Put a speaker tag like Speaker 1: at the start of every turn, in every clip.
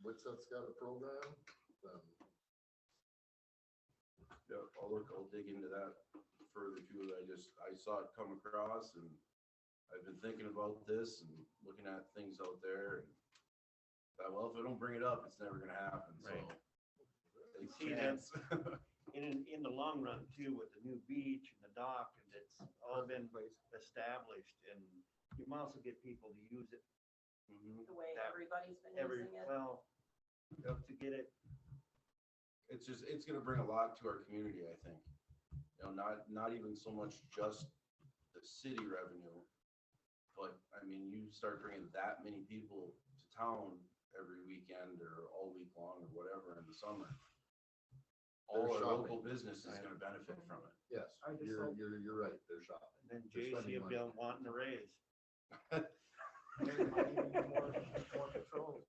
Speaker 1: Wixot's got a program, then
Speaker 2: Yeah, I'll look, I'll dig into that further too. I just, I saw it come across and I've been thinking about this and looking at things out there. and thought, Well, if I don't bring it up, it's never gonna happen, so.
Speaker 3: Right.
Speaker 2: It's
Speaker 3: See,
Speaker 2: chance.
Speaker 3: in, in the long run too, with the new beach and the dock, and it's all been established and you might also get people to use it
Speaker 2: Mhm.
Speaker 4: the way
Speaker 3: That-
Speaker 4: everybody's been
Speaker 3: every,
Speaker 4: using it.
Speaker 3: well, up to get it,
Speaker 2: It's just, it's gonna bring a lot to our community, I think. You know, not, not even so much just the city revenue. But, I mean, you start bringing that many people to town every weekend or all week long or whatever in the summer. All
Speaker 1: They're
Speaker 2: our local
Speaker 1: shopping.
Speaker 2: business is gonna benefit from it.
Speaker 1: yes,
Speaker 3: I just
Speaker 1: you're,
Speaker 3: hope-
Speaker 1: you're, you're right, they're shopping.
Speaker 3: and then
Speaker 1: They're
Speaker 3: J.C.
Speaker 1: spending
Speaker 3: will be wanting a raise.
Speaker 5: There might even be more, more patrols.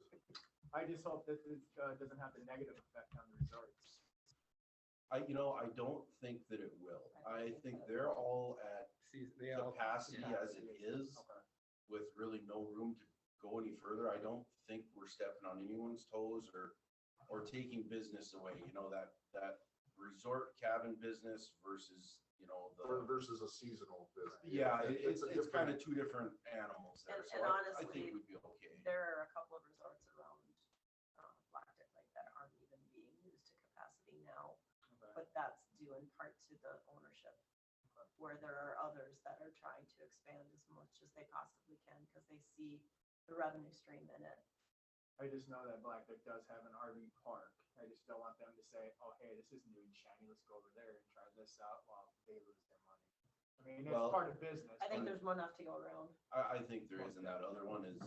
Speaker 5: I just hope that this, uh, doesn't have a negative effect on the resorts.
Speaker 2: I, you know, I don't think that it will. I think they're all at capacity
Speaker 5: Yeah.
Speaker 2: as it is with really no room to go any further. I don't think we're stepping on anyone's toes or, or taking business away, you know, that, that resort cabin business versus, you know,
Speaker 1: Or
Speaker 2: the.
Speaker 1: Versus a seasonal business.
Speaker 2: Yeah, it- it's,
Speaker 1: a
Speaker 2: it's
Speaker 1: different-
Speaker 2: kind of two different animals there,
Speaker 4: And-
Speaker 2: so
Speaker 4: and
Speaker 2: I, I
Speaker 4: honestly,
Speaker 2: think we'd be okay.
Speaker 4: There are a couple of resorts around, um, Black Duck Lake that aren't even being used to capacity now, but that's due in part to the ownership. Where there are others that are trying to expand as much as they possibly can because they see the revenue stream in it.
Speaker 5: I just know that Black Duck does have an RV park. I just don't want them to say, oh, hey, this is new and shiny, let's go over there and try this out while they lose their money. I mean, it's
Speaker 2: Well-
Speaker 5: part of business.
Speaker 4: I think
Speaker 5: but-
Speaker 4: there's enough to go around.
Speaker 2: I, I think there is, and that other one is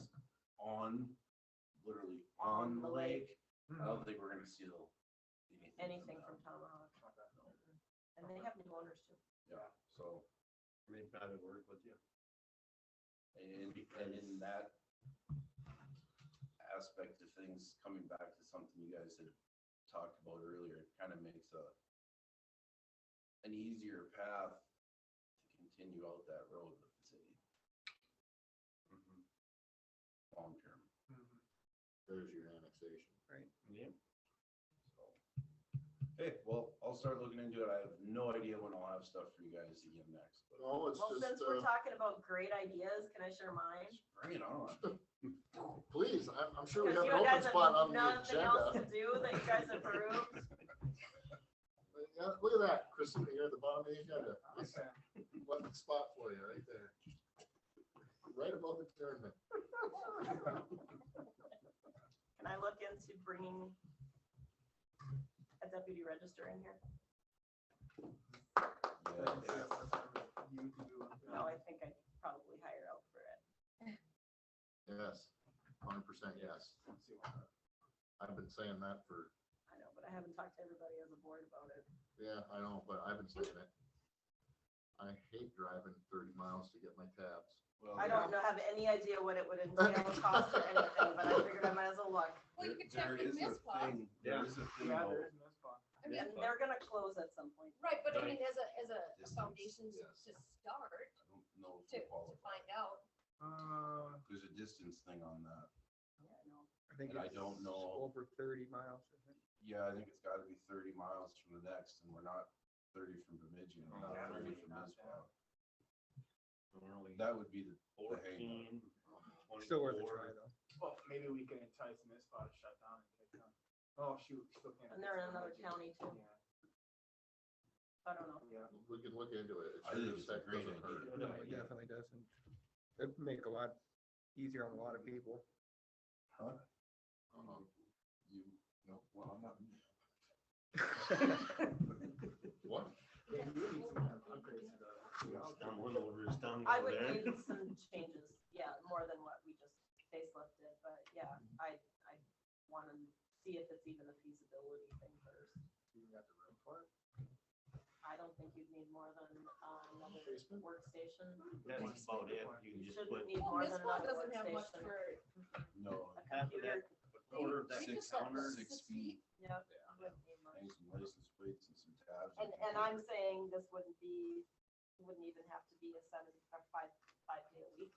Speaker 2: on, literally on
Speaker 4: On
Speaker 2: the
Speaker 4: the
Speaker 2: lake. I
Speaker 5: Mhm.
Speaker 2: don't think we're gonna steal anything
Speaker 4: anything
Speaker 2: from
Speaker 4: from
Speaker 2: that.
Speaker 4: Tomahawk. And they have new owners too.
Speaker 2: Yeah, so,
Speaker 3: Maybe that would work with you.
Speaker 2: and, and in that aspect of things, coming back to something you guys had talked about earlier, it kind of makes a an easier path to continue out that road with the city. Long term,
Speaker 5: Mhm.
Speaker 1: There's your annexation.
Speaker 3: Yeah.
Speaker 2: so. Hey, well, I'll start looking into it. I have no idea when I'll have stuff for you guys again next, but
Speaker 1: No, it's
Speaker 4: Well, since
Speaker 1: just,
Speaker 4: we're
Speaker 1: uh,
Speaker 4: talking about great ideas, can I share mine?
Speaker 2: bring it on.
Speaker 1: please, I'm, I'm sure we
Speaker 4: Because
Speaker 1: have
Speaker 4: you
Speaker 1: an open
Speaker 4: guys
Speaker 1: spot on
Speaker 4: have
Speaker 1: the
Speaker 4: nothing else to
Speaker 1: agenda.
Speaker 4: do that you guys approved.
Speaker 1: Yeah, Look at that, Christina, you're at the bottom of the agenda. This-
Speaker 5: Okay.
Speaker 1: One spot for you, right there. Right above the tournament.
Speaker 4: Can I look into bringing a deputy register in here?
Speaker 2: Yeah.
Speaker 5: You- you-
Speaker 4: No, I think I'd probably hire out for it.
Speaker 1: Yes, hundred percent, yes. I've been saying that for,
Speaker 4: I know, but I haven't talked to everybody on the board about it.
Speaker 1: yeah, I know, but I've been saying it. I hate driving thirty miles to get my tabs.
Speaker 2: Well,
Speaker 4: I don't know, have any idea what it would entail, cost or anything, but I figured I might as well look.
Speaker 6: Well, you
Speaker 2: There-
Speaker 6: could check
Speaker 2: there
Speaker 6: with
Speaker 2: is a
Speaker 6: MISPA.
Speaker 2: thing- There is a thing
Speaker 5: Yeah, there
Speaker 2: about,
Speaker 5: is no spot.
Speaker 6: I mean,
Speaker 4: And they're gonna close at some point.
Speaker 6: right, but I
Speaker 3: Right.
Speaker 6: mean, as a, as a a
Speaker 2: Distance,
Speaker 6: foundation to
Speaker 1: yes.
Speaker 6: to start,
Speaker 2: I don't know if
Speaker 6: to,
Speaker 2: it
Speaker 6: to
Speaker 2: qualifies.
Speaker 6: find out.
Speaker 5: Uh,
Speaker 2: There's a distance thing on that.
Speaker 4: Yeah, I know.
Speaker 7: I think
Speaker 2: And I
Speaker 7: it's
Speaker 2: don't know.
Speaker 7: Over thirty miles. I think.
Speaker 2: Yeah, I think it's gotta be thirty miles from the next and we're not thirty from Bemidji and we're
Speaker 5: Yeah,
Speaker 2: not thirty
Speaker 5: maybe
Speaker 2: from
Speaker 5: not
Speaker 2: Mizpah. That would be the, the hangup.
Speaker 3: Fourteen,
Speaker 7: Still worth a
Speaker 3: twenty-four.
Speaker 7: try though.
Speaker 5: well, maybe we can entice Mizpah to shut down and take them. Oh, shoot. we still can't
Speaker 4: And they're in
Speaker 5: entice
Speaker 4: another
Speaker 5: them.
Speaker 4: county too,
Speaker 5: Yeah,
Speaker 4: I don't know.
Speaker 5: Yeah.
Speaker 1: We can look into it. It
Speaker 2: I
Speaker 1: sure
Speaker 2: think
Speaker 1: as
Speaker 2: it's a
Speaker 1: heck
Speaker 2: great
Speaker 1: doesn't
Speaker 2: idea.
Speaker 1: hurt.
Speaker 7: No, it definitely doesn't. It'd make a lot easier on a lot of people.
Speaker 2: Huh? Um, You, no, well, I'm not.
Speaker 1: What?
Speaker 5: Yeah, you need some upgrades to the-
Speaker 3: Down one over his tongue
Speaker 4: I
Speaker 3: over
Speaker 4: would
Speaker 3: there.
Speaker 4: need some changes, yeah, more than what we just facelifted, but yeah, I, I wanna see if it's even a feasibility thing first.
Speaker 1: You got the room for it?
Speaker 4: I don't think you'd need more than uh, another
Speaker 1: Basement?
Speaker 4: workstation.
Speaker 3: That's about it. You can just put.
Speaker 4: Shouldn't need
Speaker 6: Well,
Speaker 4: more than
Speaker 6: MISPA
Speaker 4: another
Speaker 6: doesn't have much
Speaker 4: workstation.
Speaker 6: for,
Speaker 2: No.
Speaker 4: A
Speaker 3: half of
Speaker 4: computer,
Speaker 3: Order
Speaker 6: We
Speaker 2: Six,
Speaker 6: just got
Speaker 2: counters,
Speaker 6: six
Speaker 2: six feet,
Speaker 4: yeah,
Speaker 1: Yeah.
Speaker 4: wouldn't need much.
Speaker 2: and some license plates and some tabs.
Speaker 4: And, and I'm saying this wouldn't be, wouldn't even have to be a seven, or five, five day a week